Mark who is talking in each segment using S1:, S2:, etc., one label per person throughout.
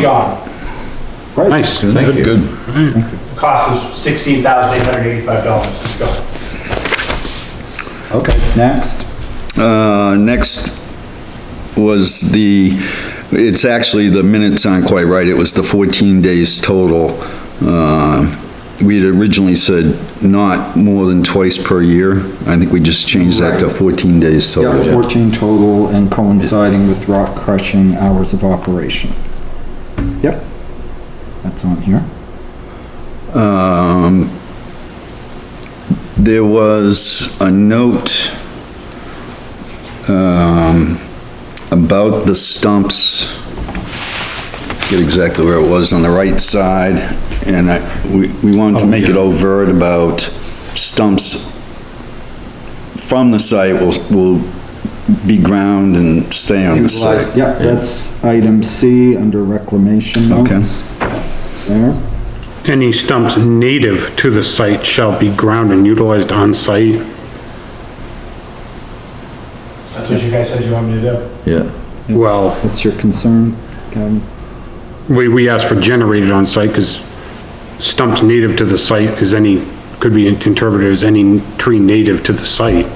S1: gone.
S2: Nice, thank you.
S3: Good.
S1: Cost us sixteen thousand eight hundred eighty-five dollars. It's gone.
S3: Okay, next.
S4: Uh, next was the, it's actually, the minutes aren't quite right, it was the 14 days total. Uh, We had originally said not more than twice per year, I think we just changed that to 14 days
S3: Yeah,
S4: total.
S3: fourteen total and coinciding with rock crushing hours of operation. Yep. That's on here.
S4: There was a note um, about the stumps, get exactly where it was, on the right side, and I, we we wanted to make it overt about stumps from the site will, will be ground and stay on the
S3: Utilize-
S4: site.
S3: Yep, that's item C under reclamation
S4: Okay.
S3: notes. It's There.
S2: Any stumps native to the site shall be ground and utilized on site.
S1: That's what you guys said you want me to do.
S5: Yeah,
S2: Well,
S3: What's your concern, Kevin?
S2: we, we asked for generated on site because stumps native to the site is any, could be interpreted as any tree native to the site,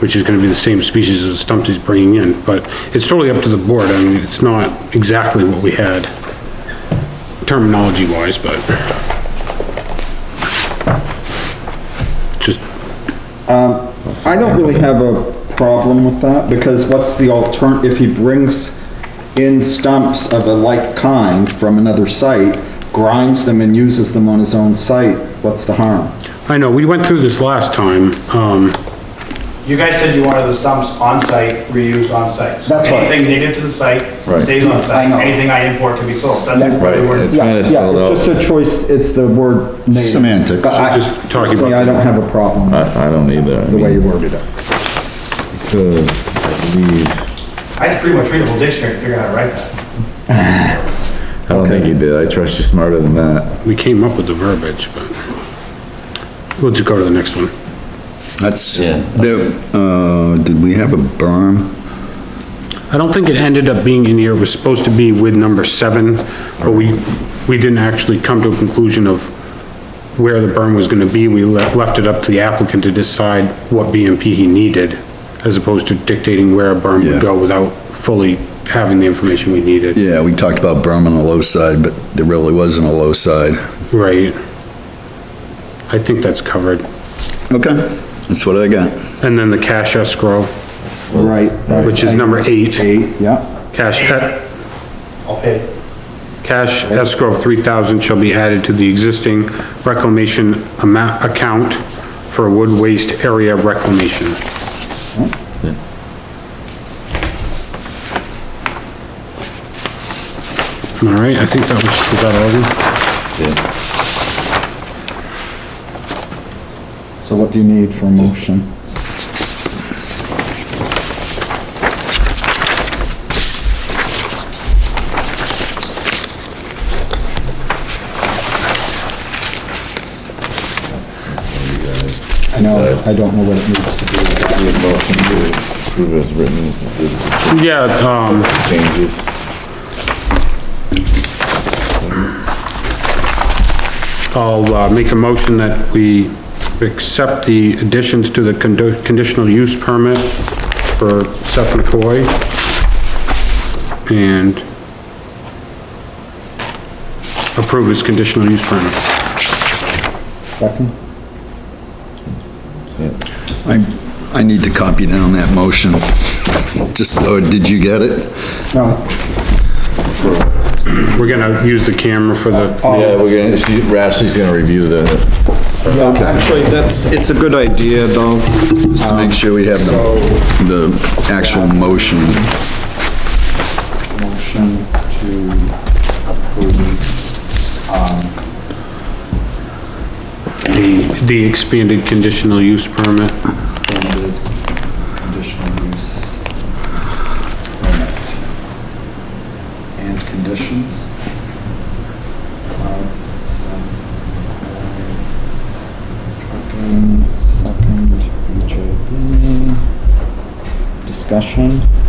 S2: which is gonna be the same species as the stumps he's bringing in, but it's totally up to the board. I mean, it's not exactly what we had terminology wise, but just
S3: I don't really have a problem with that, because what's the altern, if he brings in stumps of a like kind from another site, grinds them and uses them on his own site, what's the harm?
S2: I know, we went through this last time, um,
S1: You guys said you wanted the stumps on site, reused on site. So
S3: That's right.
S1: Anything native to the site
S5: Right.
S1: stays on
S3: I
S1: site.
S3: know.
S1: Anything I import can be sold. That's
S3: Yeah.
S1: what we were-
S5: Right, it's-
S3: Yeah,
S5: kinda
S3: yeah,
S5: spelled out.
S3: it's just a choice, it's the word native.
S4: Semantics.
S3: But I,
S2: Just talking about-
S3: see, I don't have a problem with
S5: I, I don't either. I
S3: the way you
S5: mean,
S3: worded it.
S5: Because I believe,
S1: I had to pretty much read a whole dictionary to figure out how to write that.
S5: I don't think you did. I trust you smarter than that.
S2: we came up with the verbiage, but we'll just go to the next one.
S4: That's,
S5: Yeah.
S4: there, uh, did we have a berm?
S2: I don't think it ended up being in here, it was supposed to be with number seven, but we, we didn't actually come to a conclusion of where the burn was gonna be, we le- left it up to the applicant to decide what BMP he needed, as opposed to dictating where a burn
S4: Yeah.
S2: would go without fully having the information we needed,
S4: Yeah, we talked about berm on the low side, but there really wasn't a low side.
S2: right? I think that's covered,
S4: Okay, that's what I got.
S2: and then the cash escrow,
S3: Right. that's
S2: which is
S3: item
S2: number eight,
S3: Eight, yeah,
S2: cash, e-
S1: I'll pay it.
S2: Cash escrow of three thousand shall be added to the existing reclamation amount, account for wood waste area reclamation. All right, I think that was, was that all of them?
S5: Yeah.
S3: so what do you need for a motion? I know, I don't know what it needs to be.
S5: Motion to approve as written with
S2: Yeah, um,
S5: the changes.
S2: I'll, uh, make a motion that we accept the additions to the condo- conditional use permit for Seth McCoy. And approve his conditional use permit.
S3: Second?
S4: I, I need to copy down that motion. Just, or did you get it?
S3: No,
S2: We're gonna use the camera for
S3: Oh,
S2: the,
S5: Yeah, we're gonna, she, Rashleigh's gonna review the,
S3: Yeah, Actually, that's, it's a good idea though.
S4: Just to make sure we have the, the actual motion.
S3: Motion to approve, um,
S2: the, the expanded conditional use permit.
S3: extended conditional use permit. And conditions. Allowed Seth McCoy, Trucking, second, BJB. Discussion.